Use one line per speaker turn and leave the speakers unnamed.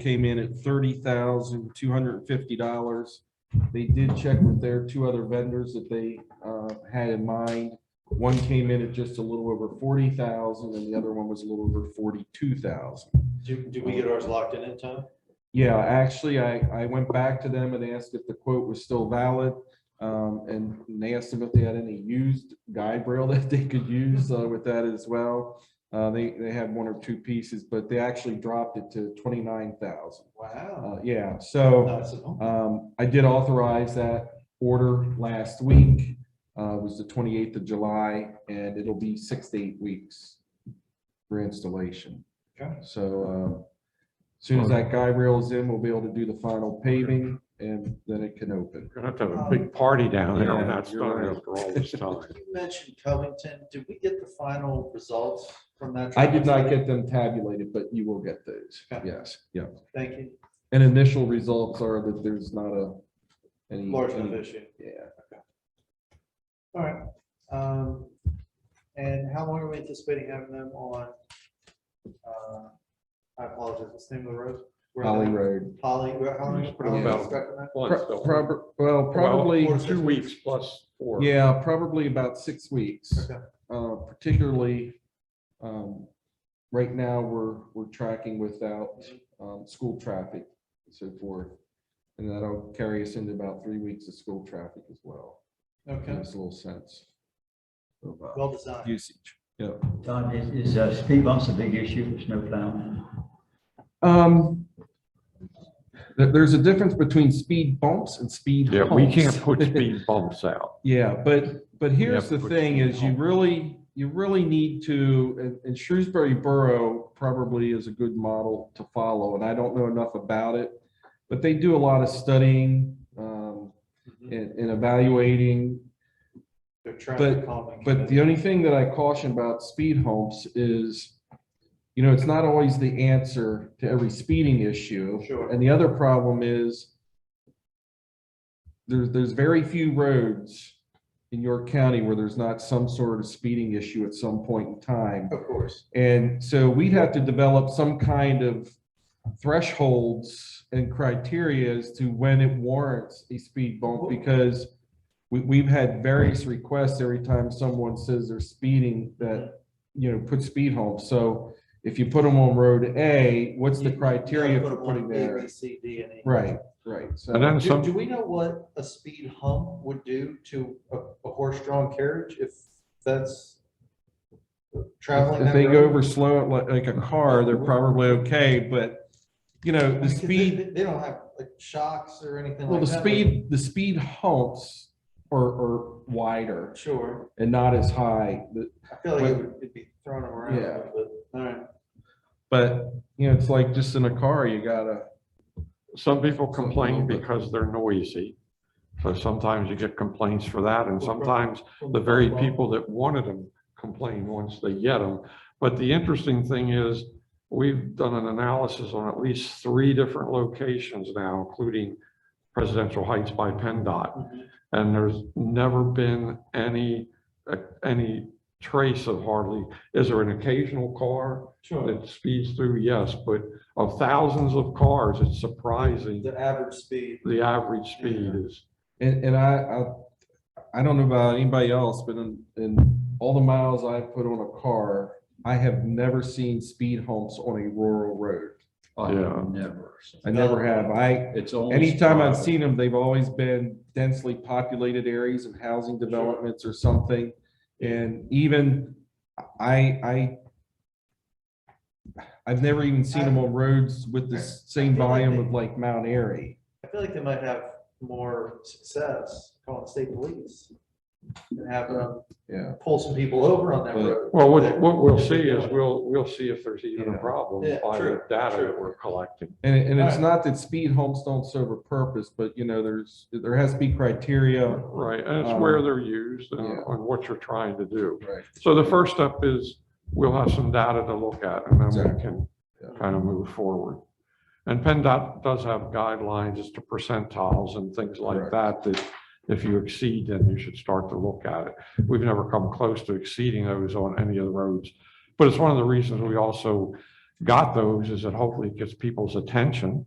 came in at thirty thousand, two hundred and fifty dollars. They did check with their two other vendors that they uh, had in mind. One came in at just a little over forty thousand and the other one was a little over forty-two thousand.
Do, do we get ours locked in in time?
Yeah, actually, I, I went back to them and asked if the quote was still valid. Um, and they asked them if they had any used guide rail that they could use uh, with that as well. Uh, they, they had one or two pieces, but they actually dropped it to twenty-nine thousand. Uh,
Wow.
yeah, so.
That's an- oh,
Um, I did authorize that order last week, uh, was the twenty-eighth of July, and it'll be six to eight weeks for installation.
Okay.
So, uh, as soon as that guy rails in, we'll be able to do the final paving, and then it can open.
Gonna have to have a big party down there on
Um, Yeah,
that
you're
stone
right.
after all this
Uh,
time.
You mentioned Covington. Did we get the final results from that?
I did not
trial?
get them tabulated, but you will get those.
Okay.
Yes, yeah.
Thank you.
And initial results are that there's not a, any.
Large enough
any-
issue.
Yeah,
All right. Um, and how long are we anticipating having them on? uh, I apologize, what's the name of the road? Where are they?
Holly Road.
Holly, where, how long?
Just put them
how long
about-
is it stuck in that?
Once,
Pro-
so-
prob- well,
Well,
probably.
Two weeks plus four.
Yeah, probably about six weeks,
Okay.
uh, particularly, um, right now, we're, we're tracking without, um, school traffic and so forth. And that'll carry us into about three weeks of school traffic as well. Give
Okay,
us a little sense of uh,
well designed.
usage. Yeah.
Don, is, is uh, speed bumps a big issue for snow plowing?
Um, there- there's a difference between speed bumps and speed
Yeah, we can't
humps.
put speed bumps out.
Yeah, but, but here's
Yeah,
the
but
thing
you
is you
know.
really, you really need to, and- and Shrewsbury Borough probably is a good model to follow, and I don't know enough about it. But they do a lot of studying, um,
Mhm.
and, and evaluating.
They're traffic
but-
calming.
But the only thing that I caution about speed humps is, you know, it's not always the answer to every speeding issue.
Sure.
And the other problem is there's, there's very few roads in York County where there's not some sort of speeding issue at some point in time.
Of course.
And so we'd have to develop some kind of thresholds and criteria as to when it warrants a speed bump because we, we've had various requests every time someone says they're speeding that, you know, put speed home. So if you put them on road A, what's the
You- you gotta
criteria
put
for
them on
putting
A, B,
there?
C, D, and E.
Right, right. So
And then
Do, do
some,
we know what a speed hump would do to a, a horse-drawn carriage if that's traveling?
if
that
they go
road?
over slow, like, like a car, they're probably okay, but you know,
I
the
mean, 'cause they-
speed.
They they don't have like shocks or anything
Well,
like
the
that. but-
speed, the speed humps are, are wider
Sure,
and not as high, but-
I feel like it
But-
would it'd be throwing them around,
Yeah.
a little bit. all right.
but, you know, it's like just in a car, you gotta,
some people
little
complain
bit.
because they're noisy. So sometimes you get complaints for that and
Well, pro-
sometimes the very people that wanted them complain once they get them. But the interesting thing is, we've done an analysis on at least three different locations now, including Presidential Heights by PennDOT.
Mhm.
And there's never been any, uh, any trace of hardly, is there an occasional car
Sure,
that speeds through? Yes, but of thousands of cars, it's surprising
the average speed,
the average speed is.
and, and I, I, I don't know about anybody else, but in, in all the miles I've put on a car, I have never seen speed humps on a rural road.
I
Yeah.
never.
I never have. I,
It's only.
anytime I've
sporadic.
seen them, they've always been densely populated areas of housing developments or something. And even I, I I've never even seen them on roads with the same volume of like Mount Airy.
I feel like they might have more success calling state police. And have them
Yeah.
pull some people over on that
But-
road.
Well, what, what we'll see is we'll, we'll see if there's even
Yeah.
a problem
Yeah,
by
true,
the data
true.
that we're collecting.
And, it- and it's
Right.
not that speed homes don't serve a purpose, but you know, there's, there has to be criteria.
Right, and it's
Um,
where they're used and
yeah.
and what you're trying to do.
Right.
So the first step is we'll have some data to look at and then
Exactly.
we can
Yeah.
kind of move forward. And PennDOT does have guidelines as to percentiles and things like that, that if you exceed, then you should start to look at it. We've never come close to exceeding those on any of the roads. But it's one of the reasons we also got those is it hopefully gets people's attention.